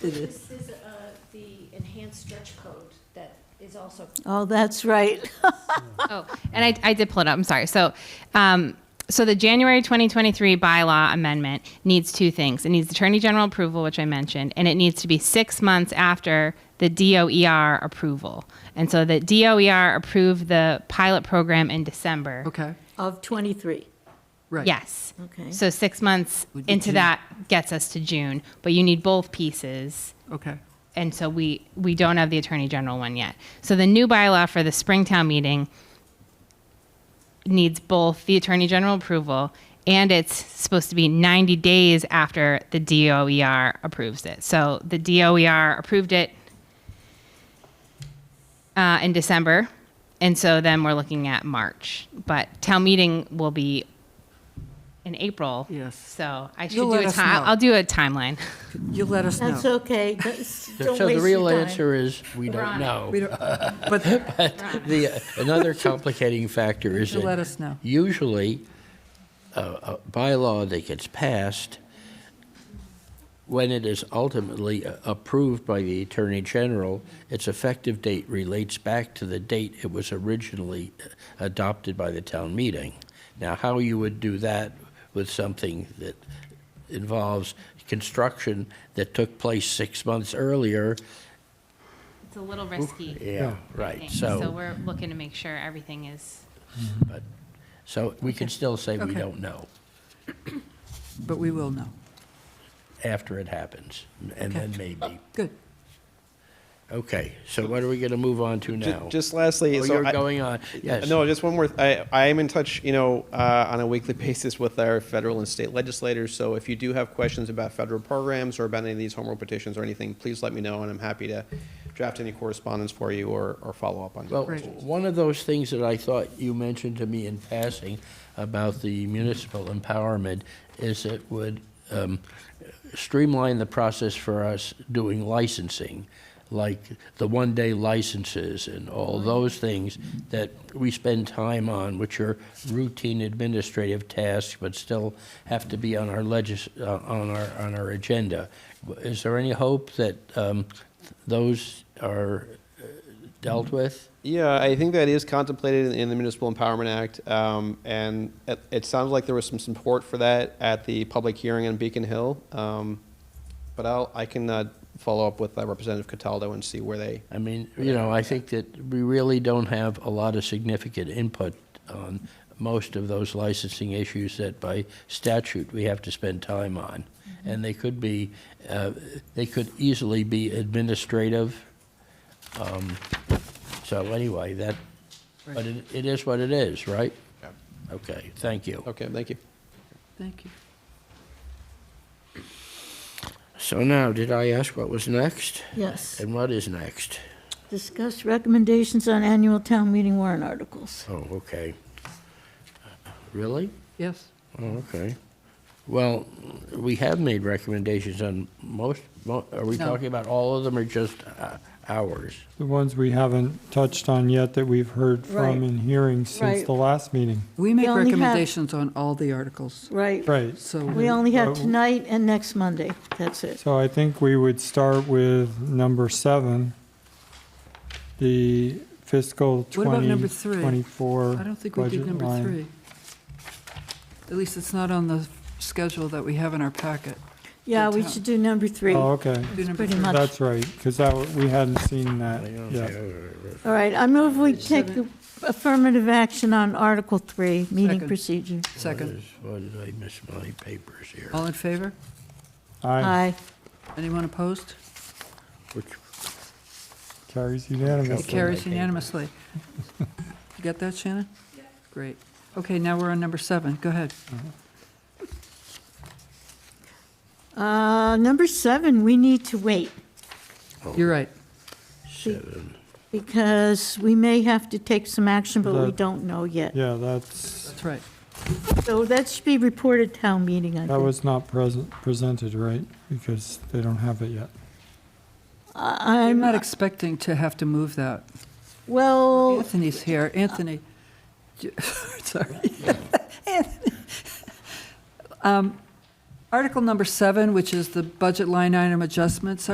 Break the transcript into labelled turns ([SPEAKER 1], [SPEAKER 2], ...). [SPEAKER 1] to this.
[SPEAKER 2] This is uh, the enhanced stretch code that is also
[SPEAKER 1] Oh, that's right.
[SPEAKER 3] Oh, and I, I did pull it up. I'm sorry. So, um, so the January 2023 bylaw amendment needs two things. It needs Attorney General approval, which I mentioned, and it needs to be six months after the DOER approval. And so the DOER approved the pilot program in December.
[SPEAKER 4] Okay,
[SPEAKER 1] Of 23.
[SPEAKER 4] right.
[SPEAKER 3] Yes.
[SPEAKER 1] Okay.
[SPEAKER 3] So six months
[SPEAKER 4] Would be
[SPEAKER 3] into
[SPEAKER 4] June.
[SPEAKER 3] that gets us to June, but you need both pieces.
[SPEAKER 4] Okay,
[SPEAKER 3] and so we we don't have the attorney general one yet. So the new bylaw for the Springtown meeting needs both the attorney general approval and it's supposed to be 90 days after the DOER approves it. So the DOER approved it uh, in December, and so then we're looking at March. But town meeting will be in April.
[SPEAKER 4] Yes.
[SPEAKER 3] So I should
[SPEAKER 4] You'll
[SPEAKER 3] do
[SPEAKER 4] let
[SPEAKER 3] a
[SPEAKER 4] us
[SPEAKER 3] ti-
[SPEAKER 4] know.
[SPEAKER 3] I'll do a timeline.
[SPEAKER 4] you'll let us
[SPEAKER 1] That's
[SPEAKER 4] know.
[SPEAKER 1] okay. That's-
[SPEAKER 5] So
[SPEAKER 1] Don't
[SPEAKER 5] the
[SPEAKER 1] waste
[SPEAKER 5] real
[SPEAKER 1] your time.
[SPEAKER 5] answer is, we don't know.
[SPEAKER 4] We don't- But,
[SPEAKER 5] The, uh, another complicating factor is
[SPEAKER 4] You'll
[SPEAKER 5] that.
[SPEAKER 4] let us know.
[SPEAKER 5] Usually, uh, a, a bylaw that gets passed, when it is ultimately a- approved by the Attorney General, its effective date relates back to the date it was originally uh, adopted by the town meeting. Now, how you would do that with something that involves construction that took place six months earlier,
[SPEAKER 3] It's a little risky.
[SPEAKER 5] yeah, right,
[SPEAKER 3] thing.
[SPEAKER 5] so.
[SPEAKER 3] So we're looking to make sure everything is,
[SPEAKER 5] But, so we can still say we
[SPEAKER 4] Okay.
[SPEAKER 5] don't know
[SPEAKER 4] but we will know.
[SPEAKER 5] after it happens, and then maybe.
[SPEAKER 4] Good.
[SPEAKER 5] Okay, so what are we going to move on to
[SPEAKER 6] Ju-
[SPEAKER 5] now?
[SPEAKER 6] Just lastly,
[SPEAKER 5] Oh,
[SPEAKER 6] so
[SPEAKER 5] you're
[SPEAKER 6] I-
[SPEAKER 5] going on, yes.
[SPEAKER 6] No, just one more. th- I, I am in touch, you know, uh, on a weekly basis with our federal and state legislators. So if you do have questions about federal programs or about any of these home rule petitions or anything, please let me know, and I'm happy to draft any correspondence for you or, or follow up on.
[SPEAKER 5] Well,
[SPEAKER 4] Right.
[SPEAKER 5] one of those things that I thought you mentioned to me in passing about the municipal empowerment is it would um, streamline the process for us doing licensing, like the one-day licenses and all those things that we spend time on, which are routine administrative tasks, but still have to be on our legis, uh, on our, on our agenda. Is there any hope that um, those are uh, dealt with?
[SPEAKER 6] Yeah, I think that is contemplated in- in the Municipal Empowerment Act, um, and it, it sounds like there was some support for that at the public hearing on Beacon Hill. Um, but I'll, I can uh, follow up with uh, Representative Cataldo and see where they.
[SPEAKER 5] I mean, you know, I think that we really don't have a lot of significant input on most of those licensing issues that by statute we have to spend time on. And they could be, uh, they could easily be administrative. Um, So anyway, that, but it it is what it is, right?
[SPEAKER 6] Yeah.
[SPEAKER 5] Okay, thank you.
[SPEAKER 6] Okay, thank you.
[SPEAKER 4] Thank you.
[SPEAKER 5] So now, did I ask what was next?
[SPEAKER 1] Yes.
[SPEAKER 5] And what is next?
[SPEAKER 1] Discuss recommendations on annual town meeting warrant articles.
[SPEAKER 5] Oh, okay. Uh, Really?
[SPEAKER 4] Yes,
[SPEAKER 5] Oh, okay. Well, we have made recommendations on most, mo- are we
[SPEAKER 4] No.
[SPEAKER 5] talking about all of them or just uh, ours?
[SPEAKER 7] The ones we haven't touched on yet that we've heard
[SPEAKER 1] Right.
[SPEAKER 7] from in hearings since
[SPEAKER 1] Right.
[SPEAKER 7] the last meeting.
[SPEAKER 4] we make
[SPEAKER 1] only have-
[SPEAKER 4] recommendations on all the articles,
[SPEAKER 1] Right.
[SPEAKER 7] Right.
[SPEAKER 4] so.
[SPEAKER 1] We only have
[SPEAKER 7] Uh,
[SPEAKER 1] tonight and next Monday. That's it.
[SPEAKER 7] So I think we would start with number seven, the fiscal
[SPEAKER 4] What about number three?
[SPEAKER 7] 2024
[SPEAKER 4] I don't think we did
[SPEAKER 7] budget
[SPEAKER 4] number
[SPEAKER 7] line.
[SPEAKER 4] three. At least it's not on the schedule that we have in our packet.
[SPEAKER 1] Yeah,
[SPEAKER 4] the
[SPEAKER 1] we
[SPEAKER 4] town.
[SPEAKER 1] should do number three.
[SPEAKER 7] Oh,
[SPEAKER 1] All
[SPEAKER 7] okay.
[SPEAKER 4] Do number
[SPEAKER 1] pretty
[SPEAKER 4] three.
[SPEAKER 1] much-
[SPEAKER 7] That's right, because that, w- we hadn't seen that yet.
[SPEAKER 1] right, I move we take affirmative action on Article Three, meeting
[SPEAKER 4] Second.
[SPEAKER 1] procedure.
[SPEAKER 5] What
[SPEAKER 4] Second. Oh.
[SPEAKER 5] is- What did I miss my papers here?
[SPEAKER 4] All in favor?
[SPEAKER 7] Aye,
[SPEAKER 1] Aye.
[SPEAKER 4] Anyone opposed?
[SPEAKER 5] Which,
[SPEAKER 7] carries
[SPEAKER 4] It
[SPEAKER 7] unanimously.
[SPEAKER 4] carries unanimously. You got that, Shannon? Great. Okay, now we're on number seven. Go ahead.
[SPEAKER 1] Uh, Number seven, we need to wait
[SPEAKER 7] Oh.
[SPEAKER 4] You're right.
[SPEAKER 5] seven,
[SPEAKER 1] because we may have to take some action, but we
[SPEAKER 7] The-
[SPEAKER 1] don't know yet.
[SPEAKER 7] Yeah, that's,
[SPEAKER 4] That's right.
[SPEAKER 1] So that should be reported town meeting, I
[SPEAKER 7] that
[SPEAKER 1] think.
[SPEAKER 7] was not present, presented, right? Because they don't have it yet.
[SPEAKER 1] I-
[SPEAKER 4] I'm
[SPEAKER 1] Uh, I'm,
[SPEAKER 4] not expecting to have to move that.
[SPEAKER 1] well,
[SPEAKER 4] Anthony's here. Anthony, j- sorry. Anthony. Um, Article number seven, which is the budget line item adjustments,